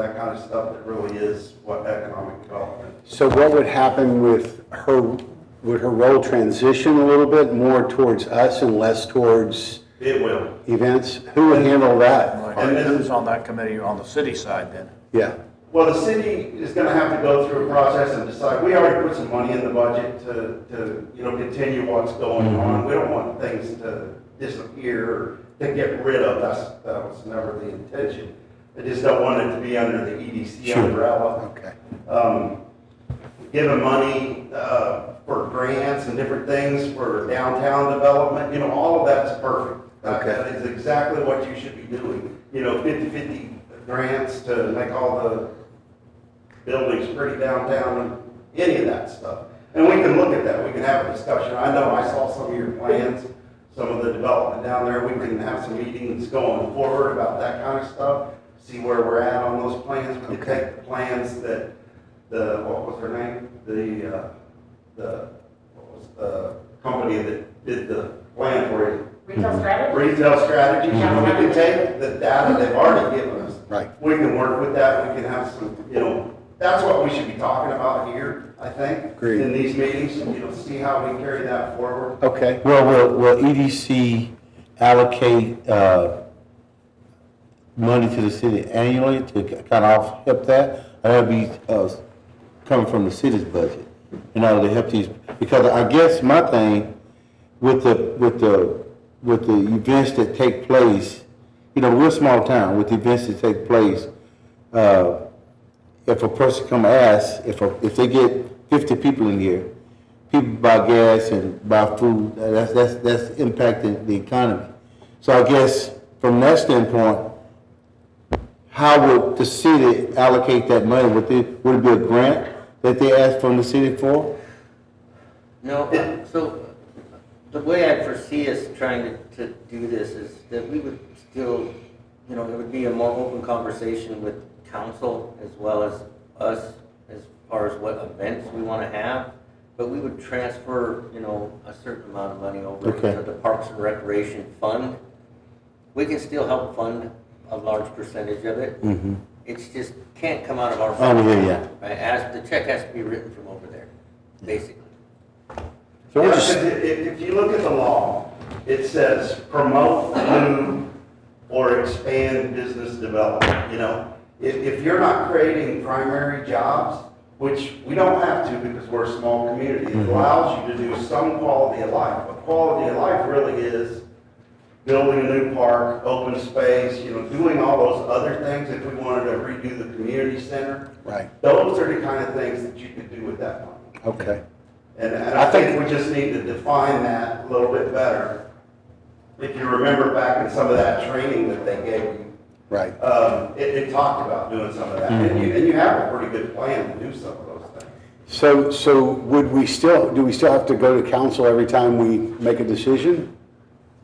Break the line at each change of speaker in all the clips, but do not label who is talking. that kind of stuff that really is what economic development.
So what would happen with her, would her role transition a little bit more towards us and less towards
It will.
events? Who would handle that?
And this
Who's on that committee on the city side then?
Yeah,
Well, the city is gonna have to go through a process and decide, we already put some money in the budget to, to, you know, continue what's going on. We don't want things to disappear, or to get rid of, that's, that was never the intention. I just don't want it to be under the EDC
Sure.
umbrella.
okay.
Um, Giving money, uh, for grants and different things for downtown development, you know, all of that's perfect. That-
Okay.
That is exactly what you should be doing, you know, fifty-fifty grants to make all the buildings pretty downtown, any of that stuff. And we can look at that, we can have a discussion. I know I saw some of your plans, some of the development down there, we can have some meetings going forward about that kind of stuff, see where we're at on those plans. We can
Okay.
take the plans that, the, what was her name? The, uh, the, what was the company that did the plan for it?
Retail strategy?
Retail strategy, we can take the data they've already given us.
Right.
We can work with that, we can have some, you know, that's what we should be talking about here, I think.
Agreed.
In these meetings, you know, see how we carry that forward.
Okay,
Well, will, will EDC allocate, uh, money to the city annually to kind of help that? Or that'd be, uh, coming from the city's budget in order to help these, because I guess my thing with the, with the, with the events that take place, you know, we're a small town, with the events that take place, uh, if a person come ask, if, a- if they get fifty people in here, people buy gas and buy food, that's, that's, that's impacting the economy. So I guess from that standpoint, how would the city allocate that money? Would they, would it be a grant that they ask from the city for?
No, uh, so the way I foresee us trying to, to do this is that we would still, you know, it would be a more open conversation with council as well as us as far as what events we want to have. But we would transfer, you know, a certain amount of money over
Okay.
to the Parks and Recreation Fund. We can still help fund a large percentage of it.
Mm-hmm.
It's just can't come out of our.
Oh, yeah, yeah.
Right, as, the check has to be written from over there, basically.
so we're
Yeah,
just,
'cause i- If, if you look at the law, it says promote new or expand business development, you know? If, if you're not creating primary jobs, which we don't have to because we're a small community,
Mm-hmm.
it allows you to do some quality of life. But quality of life really is building a new park, open space, you know, doing all those other things. If we wanted to redo the community center,
right,
those are the kind of things that you could do with that money.
okay.
And, and I
I
think
think-
we just need to define that a little bit better. If you remember back in some of that training that they gave you,
Right,
um, it, it talked about doing some of that. And you, and you have a pretty good plan to do some of those things.
so, so would we still, do we still have to go to council every time we make a decision?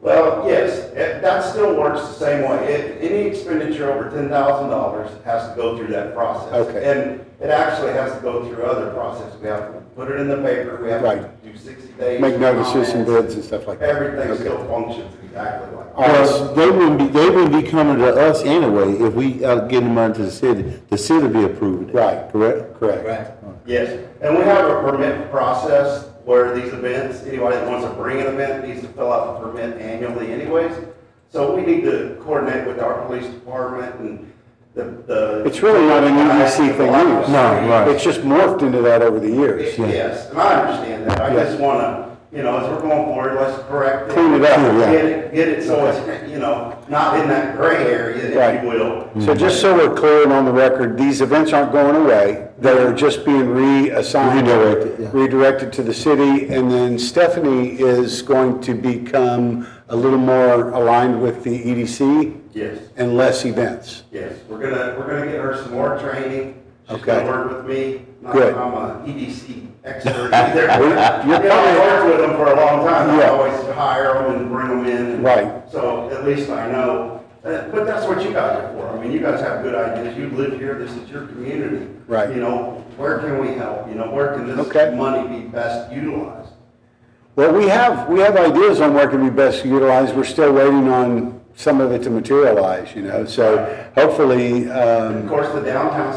Well, yes, it- that still works the same way. If any expenditure over ten thousand dollars has to go through that process.
Okay.
And it actually has to go through other processes. We have to put it in the paper, we have to
Right.
do sixty days.
Make notices and
comments.
bids and stuff like that?
Everything
Okay.
still functions exactly like that.
All right, so-
Well, they wouldn't be, they wouldn't be coming to us anyway if we are getting money to the city. The city be approving it.
Right.
Correct?
Correct.
Right.
Yes, and we have a permit process where these events, anybody that wants to bring an event needs to fill out the permit annually anyways. So we need to coordinate with our police department and the, the.
It's really not an EDC thing either.
No, right.
It's just morphed into that over the years.
Yes, and I understand that, I
Yeah.
just wanna, you know, as we're going forward, let's correct it.
Clean it up, yeah.
Get it, get it so it's, you know, not in that gray area, if
Right.
you will.
So just so we're clear and on the record, these events aren't going away. They're just being reassigned.
Redirected, yeah.
redirected to the city. And then Stephanie is going to become a little more aligned with the EDC
Yes.
and less events.
Yes, we're gonna, we're gonna get her some more training. She's
Okay.
gonna work with me. uh, Not
Good.
that I'm a EDC E expert either. You
you're
know, I worked with them for a long time. I
Yeah.
always hire them and bring them in.
Right.
So at least I know. Uh, But that's what you guys are for. I mean, you guys have good ideas. You live here. This is your community.
Right.
You know, where can we help? You know, where can
Okay.
this money be best utilized?
Well, we have, we have ideas on where can be best utilized. We're still waiting on
some of it to materialize, you know? So hopefully, um,
uh,
Of course, the downtown